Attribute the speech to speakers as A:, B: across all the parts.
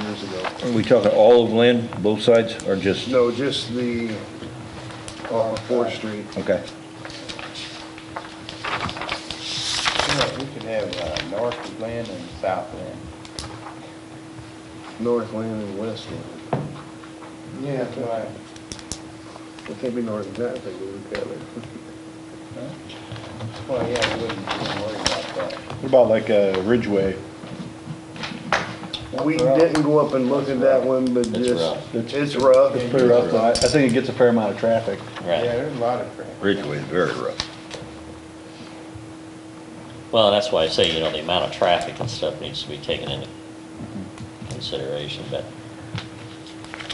A: Are we talking all of Lynn, both sides, or just,
B: No, just the, off of Fourth Street.
A: okay?
C: You know, we could have uh, north Lynn and south Lynn.
B: North Lynn and West Lynn.
C: Yeah, that's right.
B: It can't be north and south, they would look at it.
C: Well, yeah, we wouldn't wouldn't worry about that.
D: What about like uh, Ridgeway?
B: We didn't go up and look at that one, but
E: It's
B: just,
E: rough.
B: it's rough.
D: It's pretty rough, though. I I think it gets a fair amount of traffic.
C: Yeah,
E: Right.
C: there's a lot of traffic.
A: Ridgeway is very rough.
E: Well, and that's why I say, you know, the amount of traffic and stuff needs to be taken into consideration, but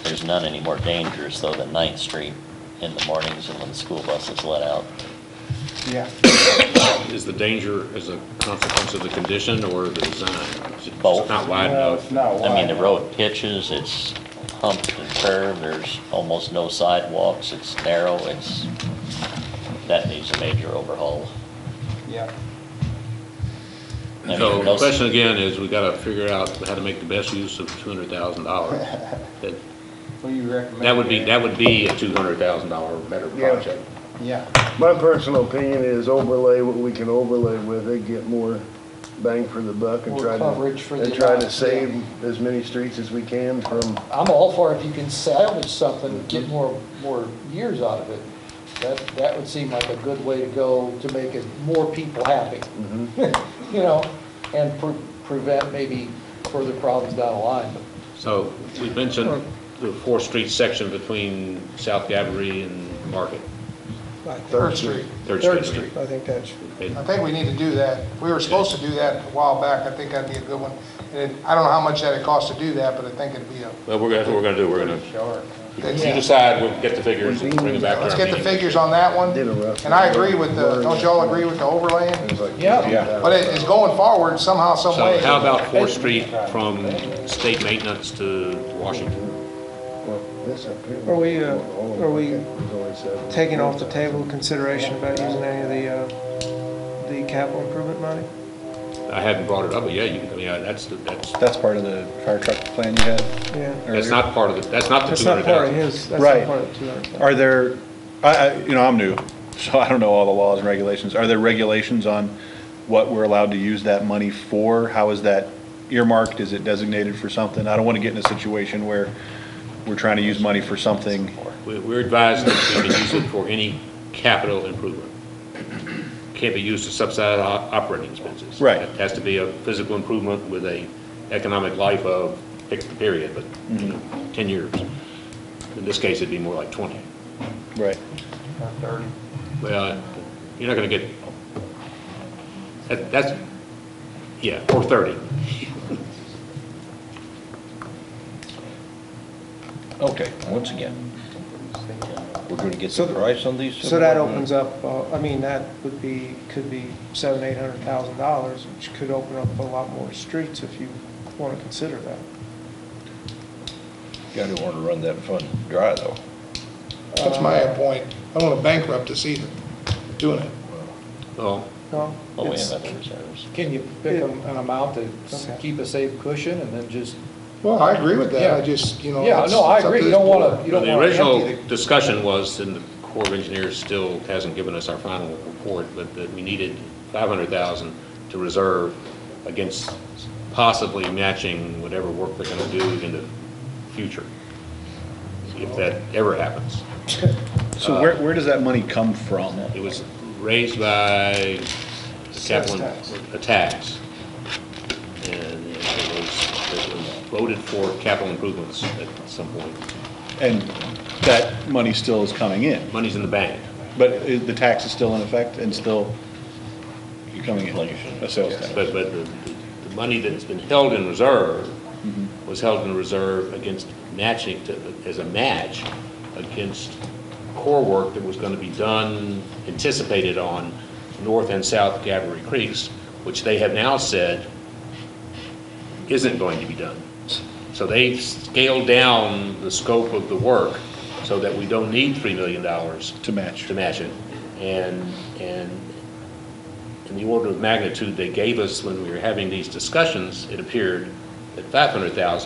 E: there's none any more dangerous though than Ninth Street in the mornings and when the school buses let out.
C: Yeah.
F: Is the danger as a consequence of the condition or the design? It's
E: Both.
F: not wide
C: No,
F: enough.
C: it's not
E: I mean, the
C: wide.
E: road pitches, it's humped and curved, there's almost no sidewalks, it's narrow, it's, that needs a major overhaul.
C: Yeah.
E: I mean,
F: So the
E: those-
F: question again is, we gotta figure out how to make the best use of two hundred thousand dollars. That
C: What do you recommend?
F: that would be,
C: there?
F: that would be a two hundred thousand dollar better
B: Yeah.
F: project.
C: Yeah,
B: My personal opinion is overlay what we can overlay with it, get more bang for the buck and
G: More
B: try
G: coverage for
B: to, and
G: the
B: try
G: amount,
B: to
G: yeah.
B: save as many streets as we can from,
G: I'm all for if you can salvage something, get more, more years out of it. That, that would seem like a good way to go to make it more people happy. You know, and pre- prevent maybe further problems down the line.
F: So we mentioned the Fourth Street section between South Gabri and Market.
H: Right.
B: Third Street.
F: Third
H: Third
F: Street.
H: Street, I think that's,
F: And
I: I think we need to do that. We were supposed to do that a while back. I think that'd be a good one. And it- I don't know how much that'd cost to do that, but I think it'd be a,
F: Well, we're, gonna- that's what we're gonna do, we're gonna,
C: sure.
F: if you decide, we'll get the figures and bring them back to
I: let's
F: our
I: get the
F: meeting.
I: figures on that one.
B: Did a rough-
I: And I agree with the, don't y'all agree with the overlaying?
B: it's like.
G: Yeah.
D: Yeah.
I: But it- it's going forward somehow, some way.
F: So how about Fourth Street from state maintenance to Washington?
B: Well, this up here-
H: Are we, uh,
B: All of it,
H: are we
B: okay, there's only seven.
H: taking off the table consideration about using any of the, uh, the capital improvement money?
F: I hadn't brought it up, but yeah, you, can- I mean, that's, the- that's,
D: That's part of the fire truck plan you had
H: Yeah.
F: that's
D: earlier.
F: not part of the, that's not the
H: That's
F: two
H: not
F: hundred
H: part of
F: thousand.
H: his, that's
D: Right.
H: not part of the two hundred thousand.
D: Are there, I, I, you know, I'm new, so I don't know all the laws and regulations. Are there regulations on what we're allowed to use that money for? How is that earmarked? Is it designated for something? I don't want to get in a situation where we're trying to use money for something.
F: We- We're advised that you can use it for any capital improvement. Can't be used to subsidize o- operating expenses.
D: Right.
F: It has to be a physical improvement with a economic life of, pick the period, but, you know,
H: Mm-hmm.
F: ten years. In this case, it'd be more like twenty.
D: Right.
C: Or thirty.
F: Well, you're not gonna get, that- that's, yeah, or thirty.
A: Okay, once again, we're gonna get the price on these?
H: So that opens up, uh, I mean, that would be, could be seven, eight hundred thousand dollars, which could open up a lot more streets if you want to consider that.
A: Gotta wanna run that fund dry, though.
I: That's my
H: Uh,
I: point. I don't want to bankrupt us either, doing it.
F: Well,
H: No?
E: But we
H: It's-
E: have other reserves.
G: Can you pick an an amount to s-
H: Okay.
G: keep a safe cushion and then just,
I: Well, I agree with that. I
G: Yeah.
I: just, you know.
G: yeah,
I: it's-
G: no, I
I: it's up
G: agree,
I: to
G: you
I: this
G: don't
I: board.
G: want to, you don't
F: The
G: want to empty
F: original
G: the.
F: discussion was, and the Corps of Engineers still hasn't given us our final report, but that we needed 500,000 to reserve against possibly matching whatever work they're going to do in the future, if that ever happens.
A: Uh,
D: So where, where does that money come from?
F: It was raised by the capital,
H: tax.
F: a tax. And it was, it was voted for capital improvements at some point.
D: And that money still is coming in,
F: Money's in the bank.
D: but i- the tax is still in effect and still coming in,
E: Inflation.
D: a sales tax.
F: But, but the, the money that's been held in reserve was held in reserve against matching, to- as a match against core work that was gonna be done, anticipated on North and South Gabory Creeks, which they have now said isn't going to be done. So they've scaled down the scope of the work so that we don't need $3 million
D: To match.
F: to match it. And, and in the order of magnitude they gave us when we were having these discussions, it appeared that 500,000